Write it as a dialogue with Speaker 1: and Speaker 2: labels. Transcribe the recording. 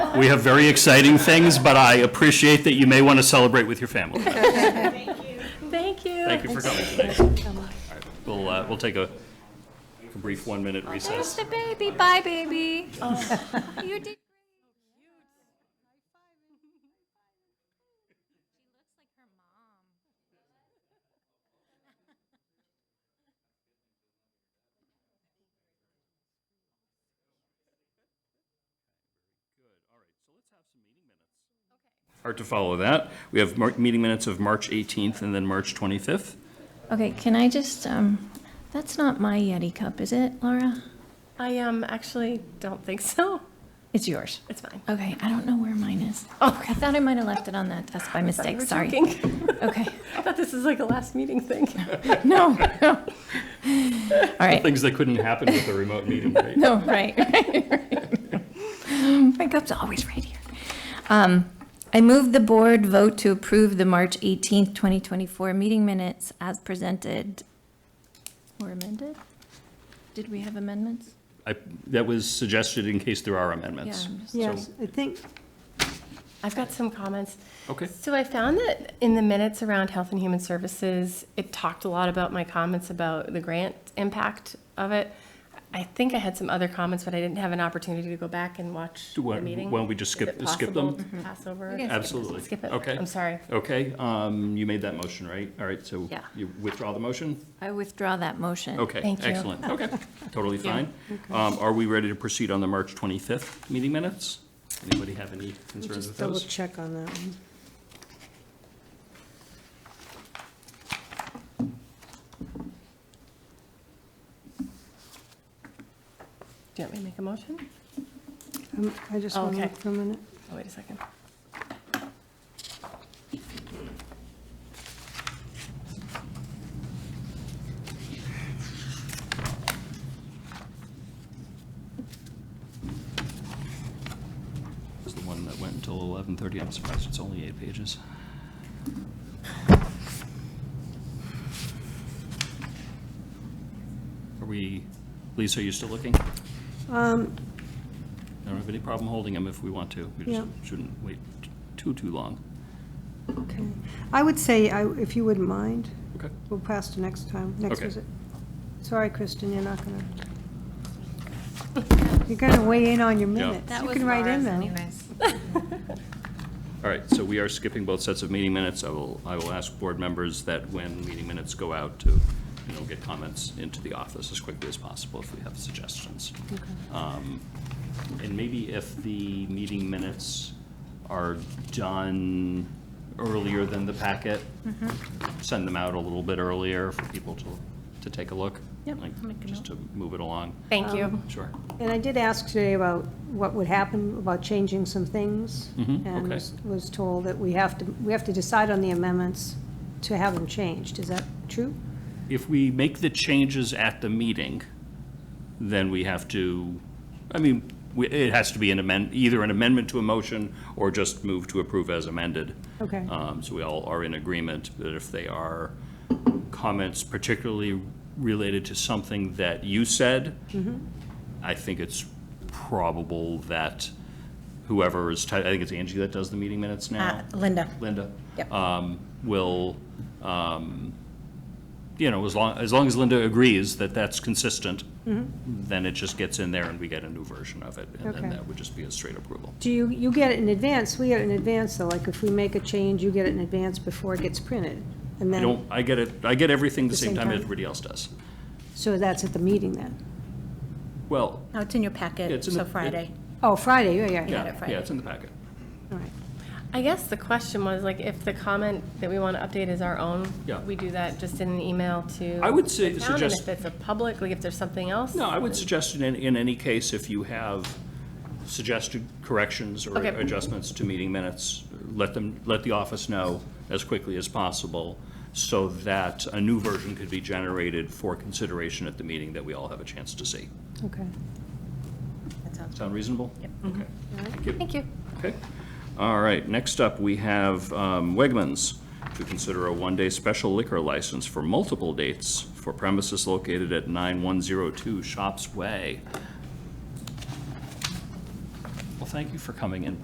Speaker 1: We have very exciting things, but I appreciate that you may want to celebrate with your family.
Speaker 2: Thank you.
Speaker 1: Thank you for coming today. All right, We'll, uh, we'll take a a brief one-minute
Speaker 2: There's
Speaker 1: recess.
Speaker 2: the baby. Bye, baby. You did.
Speaker 1: Hard to follow that. We have mar- meeting minutes of March 18th and then March 25th.
Speaker 2: Okay, can I just, um, that's not my Yeti cup, is it, Laura?
Speaker 3: I um actually don't think so.
Speaker 2: It's yours.
Speaker 3: It's fine.
Speaker 2: Okay, I don't know where mine is. Oh, I thought I might have left it on that desk by
Speaker 3: We
Speaker 2: mistake,
Speaker 3: were
Speaker 2: sorry.
Speaker 3: joking.
Speaker 2: Okay,
Speaker 3: I thought this is like a last meeting thing.
Speaker 2: no, no. All right.
Speaker 1: Things that couldn't happen with a remote meeting, right?
Speaker 2: No, right, right, right. My cup's always right here. Um, I move the board vote to approve the March 18th, 2024 meeting minutes as presented or amended? Did we have amendments?
Speaker 1: I- That was suggested in case there are
Speaker 2: Yeah,
Speaker 1: amendments.
Speaker 2: I'm just-
Speaker 1: Yes,
Speaker 4: I think.
Speaker 3: I've got some comments.
Speaker 1: Okay.
Speaker 3: So I found that in the minutes around Health and Human Services, it talked a lot about my comments about the grant impact of it. I think I had some other comments, but I didn't have an opportunity to go back and watch
Speaker 1: Do
Speaker 3: the
Speaker 1: what-
Speaker 3: meeting.
Speaker 1: why don't we just
Speaker 3: Is
Speaker 1: skip-
Speaker 3: it
Speaker 1: skip
Speaker 3: possible
Speaker 1: them?
Speaker 3: to Pass over.
Speaker 2: Okay.
Speaker 1: Absolutely.
Speaker 3: Skip it.
Speaker 1: Okay.
Speaker 3: I'm sorry.
Speaker 1: Okay, um, you made that motion, right? All right, so
Speaker 3: Yeah.
Speaker 1: you withdraw the motion?
Speaker 2: I withdraw that motion.
Speaker 1: Okay,
Speaker 3: Thank you.
Speaker 1: excellent, okay, totally fine. Um, Are we ready to proceed on the March 25th meeting minutes? Anybody have any concerns with
Speaker 4: Just double
Speaker 1: those?
Speaker 4: check on that one.
Speaker 3: Do you want me to make a motion?
Speaker 4: Um, I just want
Speaker 3: Okay.
Speaker 4: to look for a minute.
Speaker 3: Oh, wait a second.
Speaker 1: It's the one that went until 11:30, I'm surprised it's only eight pages. Are we, Lisa, are you still looking? I
Speaker 4: Um,
Speaker 1: don't have any problem holding them if we want to, we just
Speaker 4: Yeah.
Speaker 1: shouldn't wait t- too, too long.
Speaker 4: okay. I would say, I- if you wouldn't mind,
Speaker 1: Okay.
Speaker 4: we'll pass to next time, next
Speaker 1: Okay.
Speaker 4: visit. Sorry, Kristen, you're not gonna. You're gonna weigh in on your
Speaker 1: Yeah.
Speaker 4: minutes. You can write in though.
Speaker 1: All right, so we are skipping both sets of meeting minutes. I will, I will ask board members that when meeting minutes go out to, you know, get comments into the office as quickly as possible if we have suggestions. Um, And maybe if the meeting minutes are done earlier than the packet,
Speaker 2: Mm-hmm.
Speaker 1: send them out a little bit earlier for people to, to take a look.
Speaker 2: Yep,
Speaker 1: like,
Speaker 2: I'll make a
Speaker 1: Just to move it along.
Speaker 3: Thank you.
Speaker 1: Sure.
Speaker 4: And I did ask today about what would happen, about changing some things.
Speaker 1: Mhm,
Speaker 4: And
Speaker 1: okay.
Speaker 4: was- was told that we have to, we have to decide on the amendments to have them changed. Is that true?
Speaker 1: if we make the changes at the meeting, then we have to, I mean, we- it has to be an amend, either an amendment to a motion or just move to approve as amended.
Speaker 4: Okay.
Speaker 1: Um, So we all are in agreement that if they are comments particularly related to something that you said, I think it's probable that whoever is, ti- I think it's Angie that does the meeting minutes now.
Speaker 5: Linda.
Speaker 1: Linda.
Speaker 5: Yep.
Speaker 1: um, Will, um, you know, as long, as long as Linda agrees that that's consistent, then it just gets in there and we get a new version of it. And then
Speaker 4: Okay.
Speaker 1: that would just be a straight approval.
Speaker 4: Do you, you get it in advance, we get it in advance, though, like if we make a change, you get it in advance before it gets printed? And
Speaker 1: I
Speaker 4: then,
Speaker 1: don't, I get it, I get everything the same time everybody else does.
Speaker 4: so that's at the meeting then?
Speaker 1: Well,
Speaker 5: No, Oh, it's in your
Speaker 1: Yeah,
Speaker 5: packet,
Speaker 1: it's in the-
Speaker 5: so
Speaker 1: it-
Speaker 5: Friday.
Speaker 4: Oh, Friday, yeah, yeah,
Speaker 1: yeah, yeah, it's in the packet.
Speaker 4: all right.
Speaker 3: I guess the question was like, if the comment that we want to update is our own,
Speaker 1: Yeah.
Speaker 3: we do that just in an email to.
Speaker 1: I would say-
Speaker 3: the town, and
Speaker 1: suggest-
Speaker 3: If it's a public, like if there's something else.
Speaker 1: No, I would suggest in, in any case, if you have suggested corrections or
Speaker 3: Okay.
Speaker 1: adjustments to meeting minutes, let them, let the office know as quickly as possible so that a new version could be generated for consideration at the meeting that we all have a chance to see.
Speaker 4: Okay.
Speaker 5: That sounds
Speaker 1: Sound reasonable? Yep. Okay.
Speaker 2: Thank you.
Speaker 1: Okay. All right, next up, we have um, Wegmans to consider a one-day special liquor license for multiple dates for premises located at 9102 Shops Way. Well, thank you for coming in